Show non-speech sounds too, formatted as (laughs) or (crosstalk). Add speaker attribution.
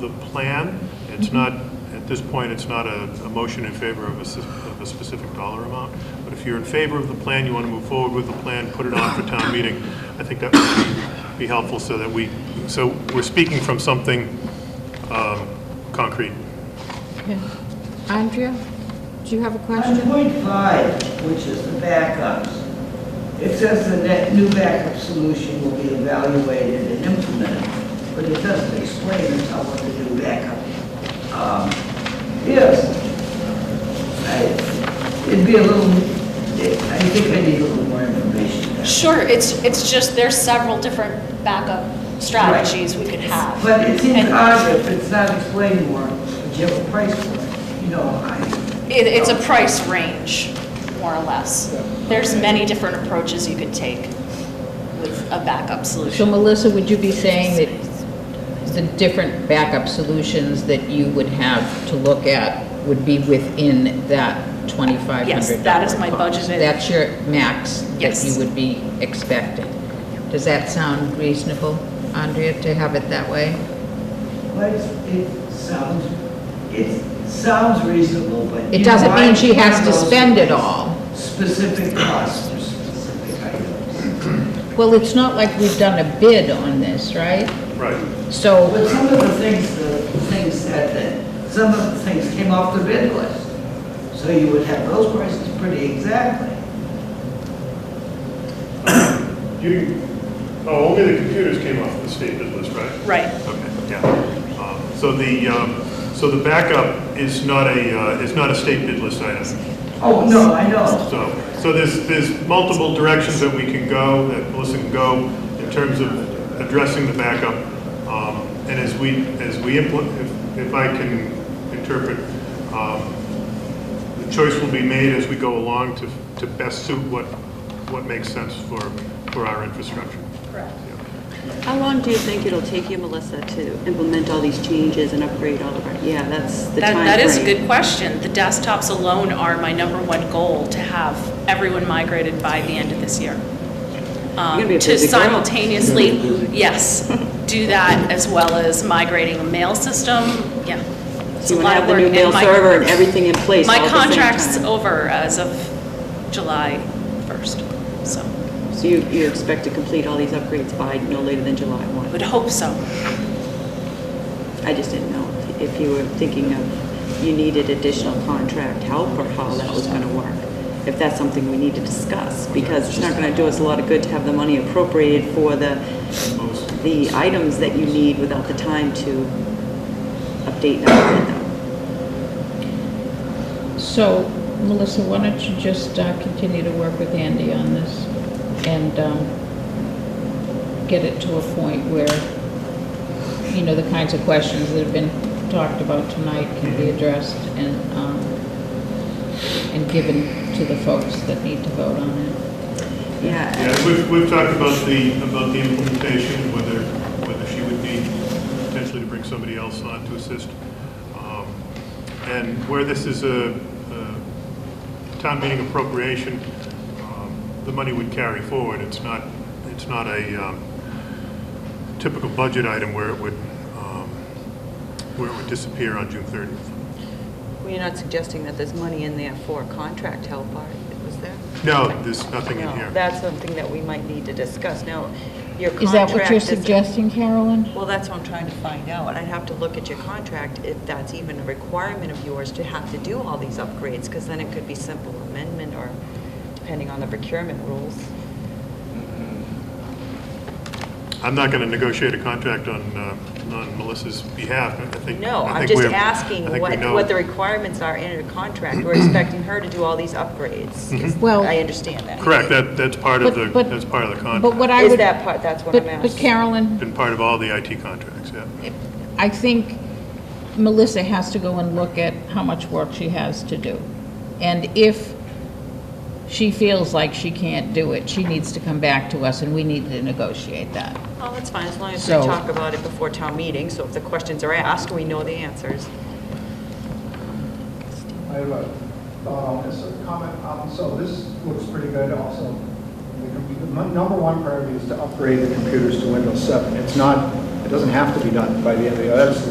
Speaker 1: the plan. It's not, at this point, it's not a, a motion in favor of a, s- of a specific dollar amount. But if you're in favor of the plan, you want to move forward with the plan, put it on for town meeting, I think that would be- be helpful so that we, so we're speaking from something, um, concrete.
Speaker 2: Okay. Andrea, do you have a
Speaker 3: On
Speaker 2: question?
Speaker 3: point five, which is the backups, it says the net- new backup solution will be evaluated and implemented, but it doesn't explain until what the new backup um, is. I- It'd be a little, I think I need a little more information. there.
Speaker 4: Sure, it's, it's just, there's several different backup strategies we could have.
Speaker 3: But it seems
Speaker 4: And
Speaker 3: odd if it's not explained more, but you have a price for it, you know, I,
Speaker 4: It, it's a price range, more or less. There's many different approaches you could take with a backup
Speaker 2: So
Speaker 4: solution.
Speaker 2: Melissa, would you be saying that the different backup solutions that you would have to look at would be within that $2,500?
Speaker 4: Yes, that is my
Speaker 2: cost?
Speaker 4: budgeted-
Speaker 2: That's your max that
Speaker 4: Yes.
Speaker 2: you would be expecting. Does that sound reasonable, Andrea, to have it that way?
Speaker 3: but it sounds, it sounds reasonable, but.
Speaker 2: It doesn't mean she has to
Speaker 3: Why-
Speaker 2: spend it all.
Speaker 3: specific costs for specific items.
Speaker 2: Well, it's not like we've done a bid on this, right?
Speaker 1: Right.
Speaker 2: So
Speaker 3: But some of the things, the things said that, some of the things came off the bid list. So you would have those prices pretty exactly.
Speaker 1: You, oh, only the computers came off the state bid list, right?
Speaker 4: Right,
Speaker 1: Okay, yeah. Um, So the, um, so the backup is not a, uh, is not a state bid list item.
Speaker 3: Oh, no, I know.
Speaker 1: So, so there's, there's multiple directions that we can go, that Melissa can go in terms of addressing the backup. Um, And as we, as we implement, if, if I can interpret, um, the choice will be made as we go along to, to best suit what, what makes sense for, for our infrastructure.
Speaker 4: correct.
Speaker 5: How long do you think it'll take you, Melissa, to implement all these changes and upgrade all of our, yeah, that's the
Speaker 4: That,
Speaker 5: time.
Speaker 4: that is a
Speaker 5: frame.
Speaker 4: good question. The desktops alone are my number one goal, to have everyone migrated by the end of this year. Um,
Speaker 5: gonna be a
Speaker 4: To
Speaker 5: busy girl. (laughs)
Speaker 4: simultaneously, yes, do that as well as migrating a mail system, yeah. It's
Speaker 5: So
Speaker 4: a lot of
Speaker 5: you want to have the
Speaker 4: work,
Speaker 5: new
Speaker 4: and
Speaker 5: mail
Speaker 4: my-
Speaker 5: server and everything in place all
Speaker 4: My
Speaker 5: at the same
Speaker 4: contract's
Speaker 5: time.
Speaker 4: over as of July 1st, so,
Speaker 5: So you, you expect to complete all these upgrades by no later than July
Speaker 4: I
Speaker 5: 1?
Speaker 4: would hope so.
Speaker 5: I just didn't know if you were thinking of, you needed additional contract help or how that was going to work. If that's something we need to discuss, because it's not going to do us a lot of good to have the money appropriated for the, the items that you need without the time to update and upgrade them.
Speaker 2: So, Melissa, why don't you just uh, continue to work with Andy on this and um, get it to a point where, you know, the kinds of questions that have been talked about tonight can be addressed and, um, and given to the folks that need to vote on it.
Speaker 5: Yeah,
Speaker 1: Yeah, we've, we've talked about the, about the implementation, whether, whether she would need potentially to bring somebody else on to assist. Um, And where this is a, a town meeting appropriation, um, the money would carry forward. It's not, it's not a um, typical budget item where it would, um, where it would disappear on June 30th.
Speaker 5: well, you're not suggesting that there's money in there for contract help, are, was there?
Speaker 1: No, there's nothing in
Speaker 5: No,
Speaker 1: here.
Speaker 5: that's something that we might need to discuss. Now, your contract.
Speaker 2: Is that what you're
Speaker 5: is-
Speaker 2: suggesting, Carolyn?
Speaker 5: Well, that's what I'm trying to find out. I'd have to look at your contract, if that's even a requirement of yours to have to do all these upgrades, because then it could be simple amendment or depending on the procurement rules.
Speaker 1: I'm not going to negotiate a contract on, uh, on Melissa's behalf, but I think.
Speaker 5: No,
Speaker 1: I
Speaker 5: I'm
Speaker 1: think
Speaker 5: just
Speaker 1: we're-
Speaker 5: asking
Speaker 1: I think we
Speaker 5: what,
Speaker 1: know-
Speaker 5: what the requirements are in a contract. We're expecting her to do all these upgrades. Is-
Speaker 2: Mm-hmm. Well-
Speaker 5: I understand that.
Speaker 1: Correct, that, that's part of
Speaker 2: But-
Speaker 1: the,
Speaker 2: but-
Speaker 1: that's part of the
Speaker 2: But
Speaker 1: contract,
Speaker 2: what I
Speaker 5: Is
Speaker 2: would,
Speaker 5: that part, that's what
Speaker 2: but
Speaker 5: I'm
Speaker 2: but
Speaker 5: asking.
Speaker 2: Carolyn,
Speaker 1: been part of all the IT contracts, yeah.
Speaker 2: I think Melissa has to go and look at how much work she has to do. And if she feels like she can't do it, she needs to come back to us, and we need to negotiate that.
Speaker 5: Oh, that's fine, as long as we
Speaker 2: So-
Speaker 5: talk about it before town meeting, so if the questions are asked, we know the answers.
Speaker 6: I have a thought on this, a comment. Um, So this looks pretty good also. The com- The mon- number one priority is to upgrade the computers to Windows 7. It's not, it doesn't have to be done by the end of the year. That's